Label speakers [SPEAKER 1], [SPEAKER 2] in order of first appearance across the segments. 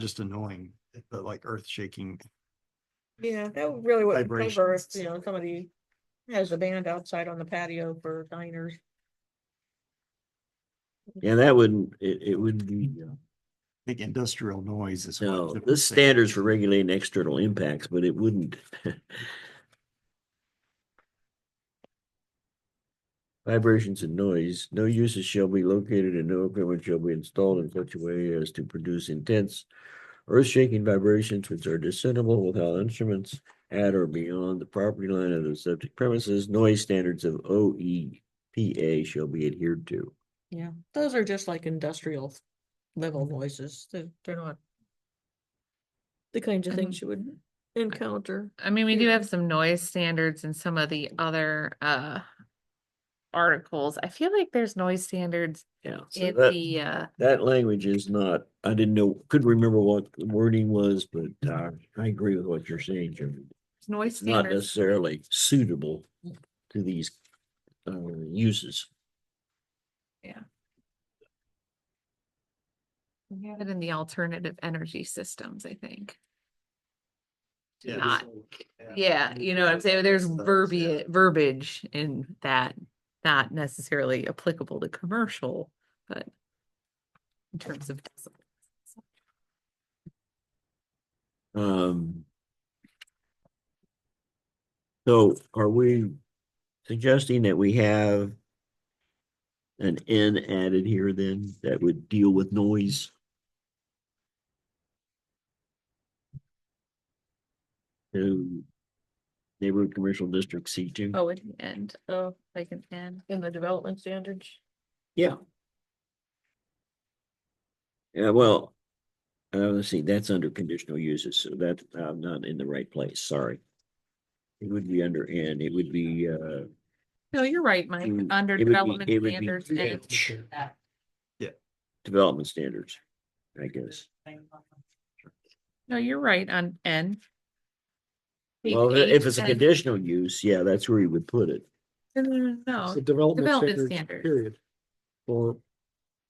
[SPEAKER 1] just annoying, but like earth shaking.
[SPEAKER 2] Yeah, that really would cover if,
[SPEAKER 1] Vibrations.
[SPEAKER 2] you know, somebody has a band outside on the patio for diners.
[SPEAKER 3] Yeah, that wouldn't, it, it would be, uh,
[SPEAKER 1] Big industrial noise is. what
[SPEAKER 3] no,
[SPEAKER 1] it would
[SPEAKER 3] this
[SPEAKER 1] say.
[SPEAKER 3] standards for regulating external impacts, but it wouldn't. Vibrations and noise, no uses shall be located and no equipment shall be installed in such a way as to produce intense earth shaking vibrations which are discernible without instruments at or beyond the property line of the subject premises. Noise standards of OEPA shall be adhered to.
[SPEAKER 2] Yeah, those are just like industrial level voices. They're, they're not the kinds of things you would encounter.
[SPEAKER 4] I mean, we do
[SPEAKER 2] Yeah.
[SPEAKER 4] have some noise standards in some of the other uh articles. I feel like there's noise standards
[SPEAKER 3] Yeah. so
[SPEAKER 4] in
[SPEAKER 3] that-
[SPEAKER 4] the uh
[SPEAKER 3] That language is not, I didn't know, couldn't remember what the wording was, but uh, I agree with what you're saying, Jim.
[SPEAKER 4] noise
[SPEAKER 3] It's not
[SPEAKER 4] standards.
[SPEAKER 3] necessarily suitable to these uh, uses.
[SPEAKER 4] We have it in the alternative energy systems, I think.
[SPEAKER 1] Yeah,
[SPEAKER 4] not-
[SPEAKER 1] so-
[SPEAKER 4] Yeah, you know what I'm saying? There's
[SPEAKER 1] Stuff, yeah.
[SPEAKER 4] verbiage, verbiage in that, not necessarily applicable to commercial, but in terms of decibel.
[SPEAKER 3] Um. So are we suggesting that we have an N added here then that would deal with noise? To neighborhood commercial district C two?
[SPEAKER 4] Oh, at the end,
[SPEAKER 2] Oh,
[SPEAKER 4] like an end.
[SPEAKER 2] in the development standards.
[SPEAKER 3] Yeah. Yeah, well, uh, let's see, that's under conditional uses, so that I'm not in the right place, sorry. It would be under N, it would be, uh,
[SPEAKER 4] No, you're right, Mike,
[SPEAKER 3] Mm,
[SPEAKER 4] under
[SPEAKER 3] it would be-
[SPEAKER 4] development
[SPEAKER 3] it would be
[SPEAKER 4] standards.
[SPEAKER 3] creative.
[SPEAKER 4] and-
[SPEAKER 3] Sure. development standards, I guess.
[SPEAKER 4] No, you're right on N. Page
[SPEAKER 3] Well, if- if
[SPEAKER 4] eight,
[SPEAKER 3] it's a
[SPEAKER 4] N.
[SPEAKER 3] conditional use, yeah, that's where you would put it.
[SPEAKER 4] No, no, no, no,
[SPEAKER 5] It's the development
[SPEAKER 4] Oh, development
[SPEAKER 5] standards,
[SPEAKER 4] standards.
[SPEAKER 5] period. For,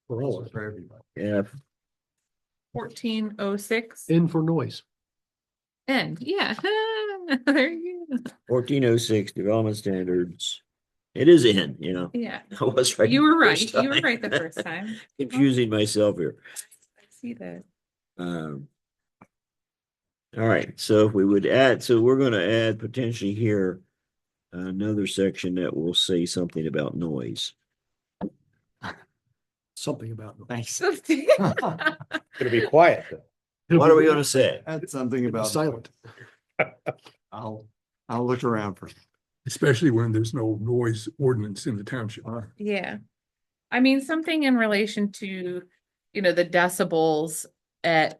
[SPEAKER 5] for all of it,
[SPEAKER 1] For everybody.
[SPEAKER 3] F,
[SPEAKER 4] fourteen oh six,
[SPEAKER 5] in for noise.
[SPEAKER 4] N, yeah. There you go.
[SPEAKER 3] fourteen oh six, development standards. It is N, you know,
[SPEAKER 4] Yeah,
[SPEAKER 3] I was right.
[SPEAKER 4] you
[SPEAKER 3] the
[SPEAKER 4] were
[SPEAKER 3] first
[SPEAKER 4] right, you were
[SPEAKER 3] time.
[SPEAKER 4] right the first time.
[SPEAKER 3] Confusing myself here.
[SPEAKER 4] I see that.
[SPEAKER 3] Um. All right, so if we would add, so we're gonna add potentially here. Another section that will say something about noise.
[SPEAKER 5] Something about. noise.
[SPEAKER 1] Thanks.
[SPEAKER 6] It'll be quiet though.
[SPEAKER 3] What are we gonna say?
[SPEAKER 1] Add something
[SPEAKER 5] It'll be
[SPEAKER 1] about.
[SPEAKER 5] Silent,
[SPEAKER 1] I'll, I'll look around for.
[SPEAKER 7] especially when there's no noise ordinance in the township.
[SPEAKER 4] Yeah. I mean, something in relation to, you know, the decibels at,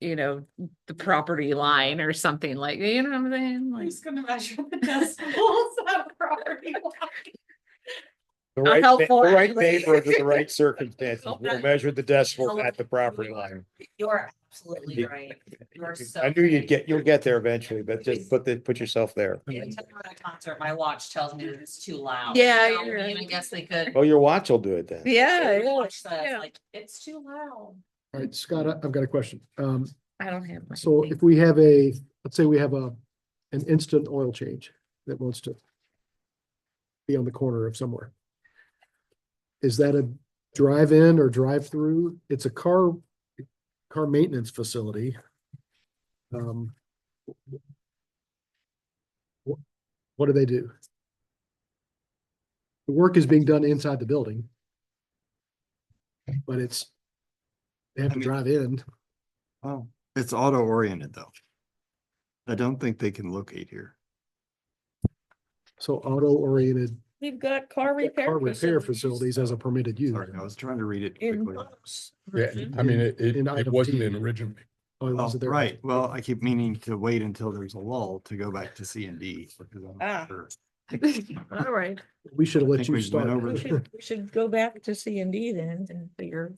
[SPEAKER 4] you know, the property line or something like, you know what I'm saying? Like-
[SPEAKER 2] gonna measure the decibels of property
[SPEAKER 6] The
[SPEAKER 4] How
[SPEAKER 6] right, fa-
[SPEAKER 4] helpful,
[SPEAKER 6] the right
[SPEAKER 4] actually.
[SPEAKER 6] neighborhood with the right circumstances will measure the decibel at the property line.
[SPEAKER 8] You're absolutely
[SPEAKER 6] Yeah.
[SPEAKER 8] right. You're so.
[SPEAKER 6] I knew you'd
[SPEAKER 8] right.
[SPEAKER 6] get, you'll get there eventually, but just put the, put yourself there.
[SPEAKER 8] Every time I'm at a Concert, my watch tells me that it's too loud.
[SPEAKER 2] Yeah,
[SPEAKER 8] So, I
[SPEAKER 2] you're
[SPEAKER 8] mean, I
[SPEAKER 2] right.
[SPEAKER 8] guess they could.
[SPEAKER 6] Well, your watch will do it then.
[SPEAKER 2] Yeah,
[SPEAKER 8] My
[SPEAKER 2] yeah,
[SPEAKER 8] watch says,
[SPEAKER 2] yeah.
[SPEAKER 8] Like, it's too loud.
[SPEAKER 5] all right, Scott, I- I've got a question. Um,
[SPEAKER 4] I don't have. my
[SPEAKER 5] so
[SPEAKER 4] thing.
[SPEAKER 5] if we have a, let's say we have a, an instant oil change that wants to. Be on the corner of somewhere. Is that a drive-in or drive-through? It's a car, car maintenance facility. Um. wh- What do they do? The work is being done inside the building. But it's. They have
[SPEAKER 1] I
[SPEAKER 5] to
[SPEAKER 1] mean-
[SPEAKER 5] drive in.
[SPEAKER 1] Oh, it's auto oriented though. I don't think they can locate here.
[SPEAKER 5] So auto oriented
[SPEAKER 2] We've got car repair.
[SPEAKER 5] car repair facilities as a permitted use.
[SPEAKER 1] Sorry, I was trying to read it
[SPEAKER 2] In
[SPEAKER 1] quickly.
[SPEAKER 2] those.
[SPEAKER 7] Yeah,
[SPEAKER 2] versions.
[SPEAKER 7] I mean, it, it,
[SPEAKER 5] In
[SPEAKER 7] it
[SPEAKER 5] item
[SPEAKER 7] wasn't
[SPEAKER 5] T.
[SPEAKER 7] in originally.
[SPEAKER 5] Oh, it
[SPEAKER 1] Oh,
[SPEAKER 5] wasn't there.
[SPEAKER 1] right. Well, I keep meaning to wait until there's a lull to go back to C and D. because I'm
[SPEAKER 2] Ah.
[SPEAKER 1] not sure.
[SPEAKER 2] All right,
[SPEAKER 5] We should have
[SPEAKER 1] I
[SPEAKER 5] let
[SPEAKER 1] think
[SPEAKER 5] you
[SPEAKER 1] we went
[SPEAKER 5] start.
[SPEAKER 1] over
[SPEAKER 2] we should, we should go back to C and D then and figure.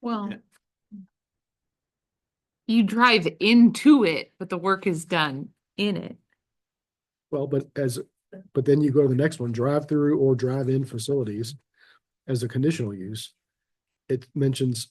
[SPEAKER 4] Well.
[SPEAKER 1] Yeah.
[SPEAKER 4] You drive into it, but the work is done in it.
[SPEAKER 5] Well, but as, but then you go to the next one, drive-through or drive-in facilities as a conditional use. It mentions